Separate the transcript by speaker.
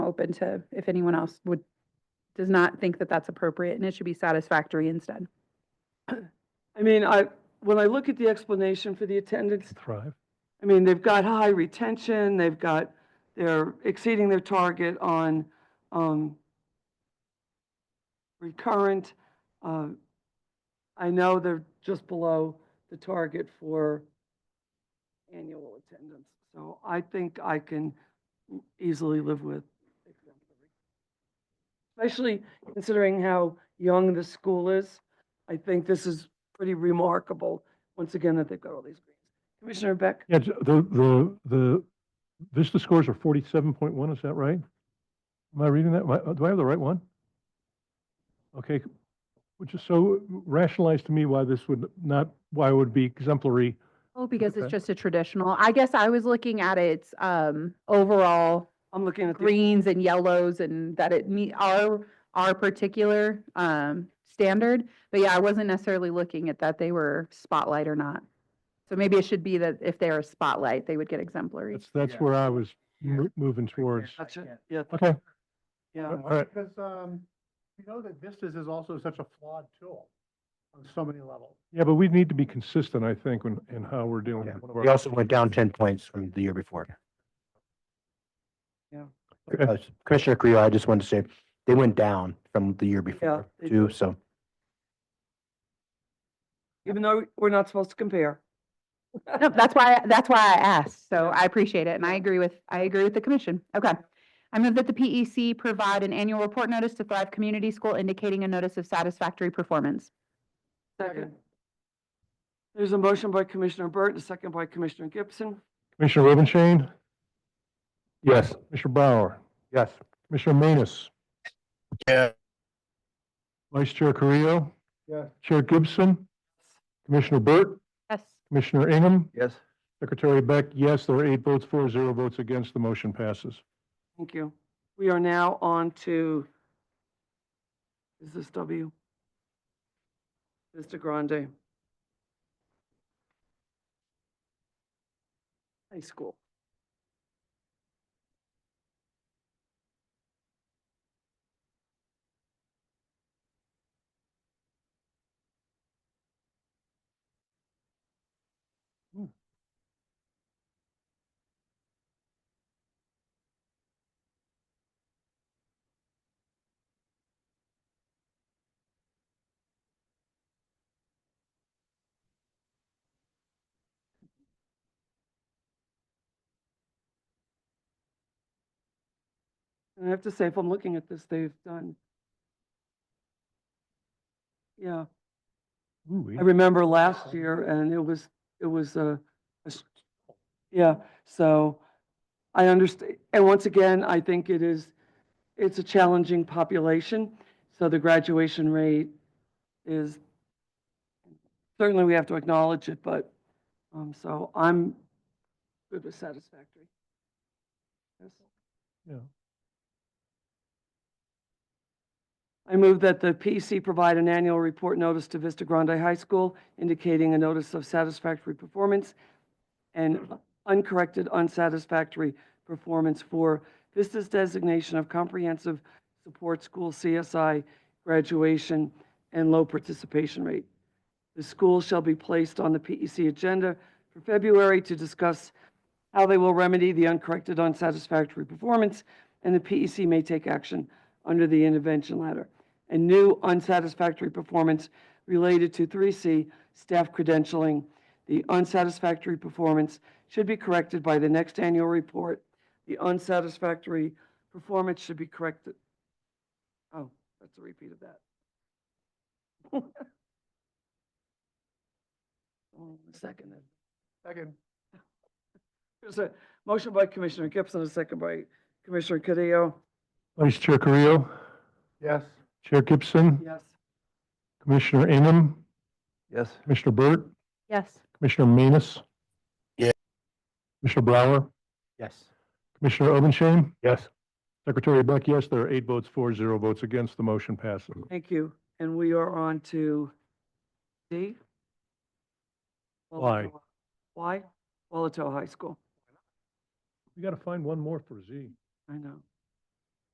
Speaker 1: open to if anyone else would, does not think that that's appropriate and it should be satisfactory instead.
Speaker 2: I mean, I, when I look at the explanation for the attendance,
Speaker 3: Thrive.
Speaker 2: I mean, they've got high retention, they've got, they're exceeding their target on, um, recurrent, uh, I know they're just below the target for annual attendance. So I think I can easily live with exemplary. Especially considering how young the school is, I think this is pretty remarkable, once again, that they've got all these grades. Commissioner Beck?
Speaker 3: Yeah, j- the, the, the Vista scores are forty-seven point one, is that right? Am I reading that? Am I- Do I have the right one? Okay, c- which is so rationalize to me why this would not, why it would be exemplary.
Speaker 1: Oh, because
Speaker 3: Okay.
Speaker 1: it's just a traditional, I guess I was looking at its, um, overall
Speaker 2: I'm looking at the,
Speaker 1: greens and yellows and that it meet our, our particular, um, standard. But yeah, I wasn't necessarily looking at that they were spotlight or not. So maybe it should be that if they are spotlight, they would get exemplary.
Speaker 3: That's, that's
Speaker 4: Yeah.
Speaker 3: where I was
Speaker 4: Yeah.
Speaker 3: mo- moving towards.
Speaker 2: gotcha, yeah,
Speaker 3: Okay,
Speaker 2: yeah,
Speaker 3: all right,
Speaker 4: Because, um, you know that Vistas is also such a flawed tool on so many levels.
Speaker 3: yeah, but we need to be consistent, I think, in, in how we're doing.
Speaker 5: Yeah.
Speaker 3: with one of
Speaker 5: We
Speaker 3: our-
Speaker 5: also went down ten points from the year before.
Speaker 2: Yeah.
Speaker 3: Okay.
Speaker 5: Uh, Commissioner Creel, I just wanted to say, they went down from the year before
Speaker 2: they
Speaker 5: too, so.
Speaker 2: even though we're not supposed to compare.
Speaker 1: No, that's why, that's why I asked. So I appreciate it and I agree with, I agree with the commission. Okay. I move that the PEC provide an annual report notice to Thrive Community School indicating a notice of satisfactory performance.
Speaker 2: Second. There's a motion by Commissioner Burt, and a second by Commissioner Gibson.
Speaker 3: Commissioner Rubenstein? Yes. Commissioner Bauer?
Speaker 5: Yes.
Speaker 3: Commissioner Manus?
Speaker 5: Yeah.
Speaker 3: Vice Chair Carrillo?
Speaker 4: Yes.
Speaker 3: Chair Gibson? Commissioner Burt?
Speaker 1: Yes.
Speaker 3: Commissioner Ingham?
Speaker 5: Yes.
Speaker 3: Secretary Beck, yes, there are eight votes for, zero votes against, the motion passes.
Speaker 2: Thank you. We are now on to, is this W? Mr. Grande. High school. And I have to say, if I'm looking at this, they've done. Yeah.
Speaker 3: Ooh-wee.
Speaker 2: I remember last year and it was, it was a, a s- yeah, so I understand. And once again, I think it is, it's a challenging population. So the graduation rate is, certainly we have to acknowledge it, but, um, so I'm good with satisfactory. Yes.
Speaker 3: Yeah.
Speaker 2: I move that the PC provide an annual report notice to Vista Grande High School indicating a notice of satisfactory performance and uncorrected unsatisfactory performance for Vista's designation of comprehensive support school CSI graduation and low participation rate. The school shall be placed on the PEC agenda for February to discuss how they will remedy the uncorrected unsatisfactory performance, and the PEC may take action under the intervention ladder. And new unsatisfactory performance related to 3C staff credentialing. The unsatisfactory performance should be corrected by the next annual report. The unsatisfactory performance should be corrected. Oh, that's a repeat of that. Oh, Hold on a second then.
Speaker 4: Second.
Speaker 2: There's a motion by Commissioner Gibson, a second by Commissioner Carrillo.
Speaker 3: Vice Chair Carrillo?
Speaker 4: Yes.
Speaker 3: Chair Gibson?
Speaker 2: Yes.
Speaker 3: Commissioner Ingham?
Speaker 5: Yes.
Speaker 3: Commissioner Burt?
Speaker 1: Yes.
Speaker 3: Commissioner Manus?
Speaker 5: Yeah.
Speaker 3: Commissioner Bauer?
Speaker 5: Yes.
Speaker 3: Commissioner Rubenstein?
Speaker 5: Yes.
Speaker 3: Secretary Beck, yes, there are eight votes for, zero votes against, the motion passes.
Speaker 2: Thank you. And we are on to D.
Speaker 3: Why?
Speaker 2: Walatoa. Why? Walatoa High School.
Speaker 3: We got to find one more for Z.
Speaker 2: I know.